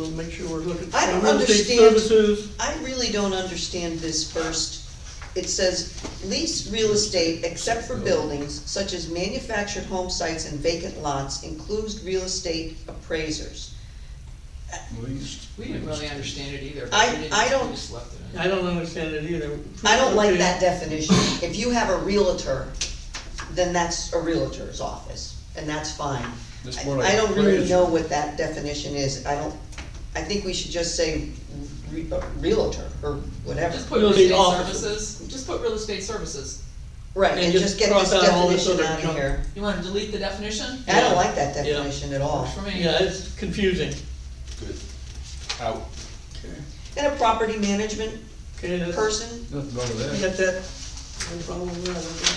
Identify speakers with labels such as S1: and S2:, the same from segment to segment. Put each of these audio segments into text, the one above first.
S1: We'll make sure we're looking.
S2: I don't
S1: Real estate
S2: understand.
S1: Services,
S2: I really don't understand this first. It says, lease real estate except for buildings such as manufactured home sites and vacant lots includes real estate appraisers.
S3: Least.
S4: We didn't really understand it either.
S2: I-
S4: We didn't-
S2: I don't-
S4: We just left it in.
S1: I don't understand it either.
S2: I don't like that definition. If you have a realtor, then that's a realtor's office, and that's fine.
S3: It's more like
S2: I I don't really
S3: appraiser.
S2: know what that definition is. I don't, I think we should just say re- uh, realtor or whatever.
S4: Just put
S1: Real
S4: real
S1: estate
S4: estate
S1: offices.
S4: services, just put real estate services.
S2: Right,
S1: And
S2: and
S1: just
S2: just get
S1: cross
S2: this
S1: out all this
S2: definition
S1: other
S2: out of
S1: junk.
S2: here.
S4: You wanna delete the definition?
S2: I don't like that
S1: Yeah.
S2: definition at all.
S4: Works for me.
S1: Yeah, it's confusing.
S3: Good. Out.
S2: And a property management
S1: Okay, that's.
S2: person,
S3: Nothing wrong
S1: You
S3: with
S1: got
S3: that.
S1: that? No problem with that, okay.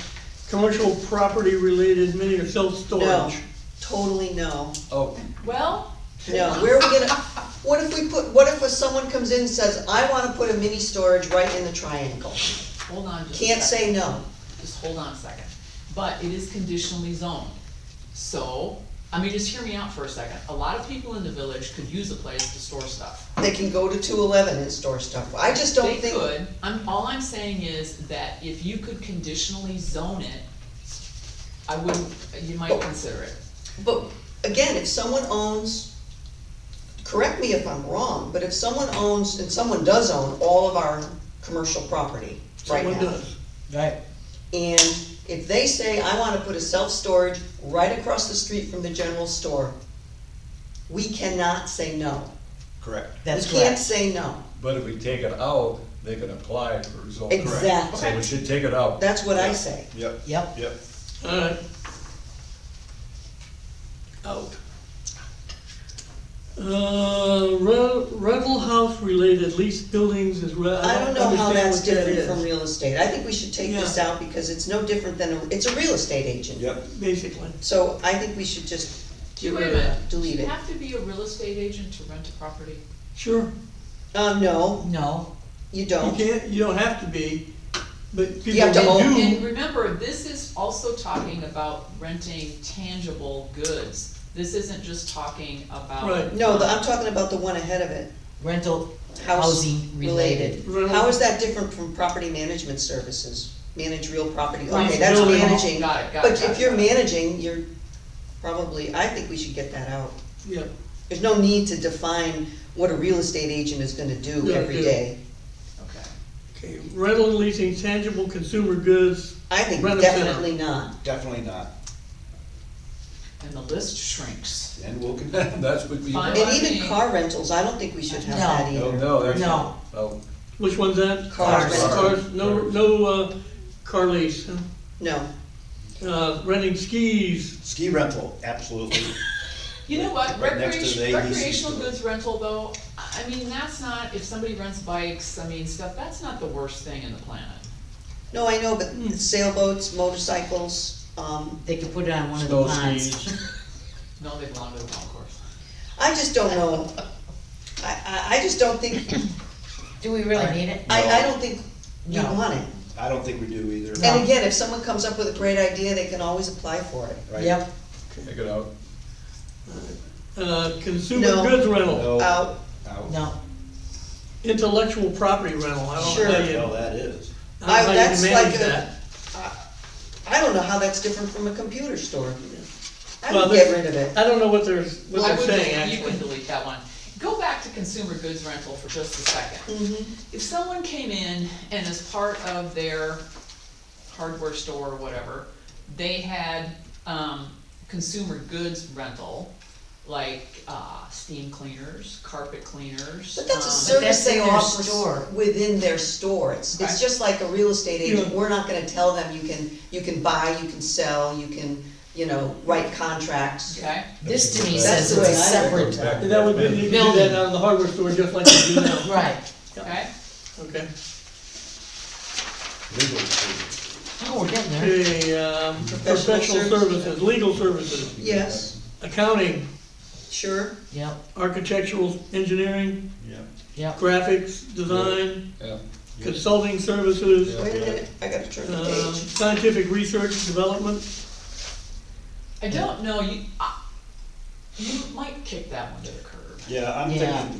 S1: Commercial property related mini or
S2: no,
S1: self-storage.
S2: totally no.
S3: Oh,
S4: Well,
S2: No, where are we gonna, what if we put, what if someone comes in and says, I wanna put a mini storage right in the triangle?
S4: hold on just a
S2: Can't
S4: second.
S2: say no.
S4: Just hold on a second. But it is conditionally zoned. So, I mean, just hear me out for a second. A lot of people in the village could use a place to store stuff.
S2: They can go to two eleven and store stuff. I just don't
S4: They
S2: think.
S4: could, I'm, all I'm saying is that if you could conditionally zone it, I wouldn't, you
S2: Oh.
S4: might consider it.
S2: But again, if someone owns, correct me if I'm wrong, but if someone owns, and someone does own all of our commercial property right now.
S1: Someone does.
S5: Right,
S2: And if they say, I wanna put a self-storage right across the street from the general store, we cannot say no.
S3: correct.
S5: that's
S2: We can't
S5: correct.
S2: say no.
S3: But if we take it out, they can apply for rezone.
S2: Exactly.
S3: So we should take it out.
S2: That's what I
S3: Yeah.
S2: say.
S3: Yep,
S5: Yep,
S3: yep.
S1: Alright. Out. Uh, re- rental house related leased buildings is where
S2: I don't know how
S1: understand
S2: that's
S1: what that
S2: different from
S1: is,
S2: real estate. I think we should take this
S1: Yeah.
S2: out because it's no different than, a- it's a real estate agent.
S3: Yep.
S1: Basically.
S2: So I think we should just get
S4: Wait a
S2: rid of
S4: minute.
S2: that, delete
S4: Do you
S2: it.
S4: have to be a real estate agent to rent a property?
S1: Sure.
S2: Um, no,
S5: no,
S2: you
S1: You
S2: don't.
S1: can't, you don't have to be, but people
S2: have to own
S1: who
S4: And
S1: do,
S4: remember, this is also talking about renting tangible goods. This isn't just talking about.
S1: Right.
S2: No, the- I'm talking about the one ahead of it,
S5: rental
S2: house
S5: housing related.
S2: related.
S1: Related.
S2: How is that different from property management services? Manage real property,
S4: Right.
S2: okay, that's
S1: Building.
S2: managing.
S4: Got it, got it,
S2: But
S4: got
S2: if
S4: it,
S2: you're
S4: got it.
S2: managing, you're probably, I think we should get that out.
S1: yeah,
S2: There's no need to define what a real estate agent is gonna do
S1: Yeah,
S2: every
S1: do.
S2: day.
S4: Okay.
S1: okay, rental and leasing tangible consumer goods,
S2: I think
S1: Rent a center.
S2: definitely not.
S6: Definitely not,
S4: And the list shrinks.
S6: and we'll continue.
S3: That's what we.
S4: Fine.
S2: And even car rentals, I don't think we should have that
S3: No,
S2: either.
S3: no, there's.
S5: No.
S3: Oh,
S1: which one's that?
S2: Cars.
S1: Cars, no, no, uh, car lease, huh?
S2: No,
S1: uh, renting skis,
S6: Ski rental, absolutely.
S4: You know what,
S6: Right next to the
S4: recreation,
S6: AEC
S4: recreational
S6: store.
S4: goods rental though, I I mean, that's not, if somebody rents bikes, I mean, stuff, that's not the worst thing in the planet.
S2: no, I know, but sailboats, motorcycles, um,
S5: They could put it on one of the
S3: snow
S5: ponds.
S3: skis.
S4: No, they belong to the golf course.
S2: I just don't know. I, I, I just don't think,
S5: Do we really need it?
S2: I, I don't think you
S5: No.
S2: want it.
S6: I don't think we do either.
S5: No.
S2: And again, if someone comes up with a great idea, they can always apply for it.
S6: Right?
S5: Yep,
S3: Take it out.
S1: uh, consumer
S2: No.
S1: goods rental,
S6: No.
S2: Out,
S6: Out.
S5: no,
S1: intellectual property rental, I don't
S2: Sure.
S1: know how you,
S6: Hell, that is.
S1: I
S2: I-
S1: don't know how
S2: that's
S1: you manage
S2: like a-
S1: that.
S2: I don't know how that's different from a computer store. I
S1: Well,
S2: would get
S1: there's-
S2: rid of it.
S1: I don't know what they're, what
S4: I
S1: they're
S4: would
S1: saying,
S4: delete- You
S1: actually.
S4: can delete that one. Go back to consumer goods rental for just a second. If someone came in and as part of their hardware store or whatever, they had, um, consumer goods rental, like, uh, steam cleaners, carpet cleaners.
S2: But that's a
S4: um,
S2: service
S5: that's
S2: they
S5: in their
S2: offer
S5: store.
S2: within their store. It's,
S4: Right.
S2: it's just like a real estate agent.
S1: Yeah.
S2: We're not gonna tell them you can, you can buy, you can sell, you can, you know, write contracts.
S4: Okay,
S5: this to me
S6: That's
S5: says
S2: the
S5: it's
S2: way
S5: a
S2: I
S5: separate,
S3: Back.
S1: And that would be, you can do that
S5: Building.
S1: out of the hardware store just like you do now,
S5: right,
S4: okay?
S1: okay?
S6: Legal. too.
S5: oh, we're getting there.
S1: Okay, um,
S2: Professional
S1: professional
S2: services.
S1: services, legal services,
S2: Yes,
S1: accounting,
S2: sure,
S5: Yep,
S1: architectural engineering,
S6: Yep.
S5: yep,
S1: graphics, design,
S3: Yeah.
S1: consulting services,
S3: Yeah.
S2: wait a minute, I gotta turn the
S1: um,
S2: page.
S1: scientific research, development,
S4: I don't know, you, I- you might kick that one to the curb.
S6: Yeah, I'm
S5: Yeah.
S6: thinking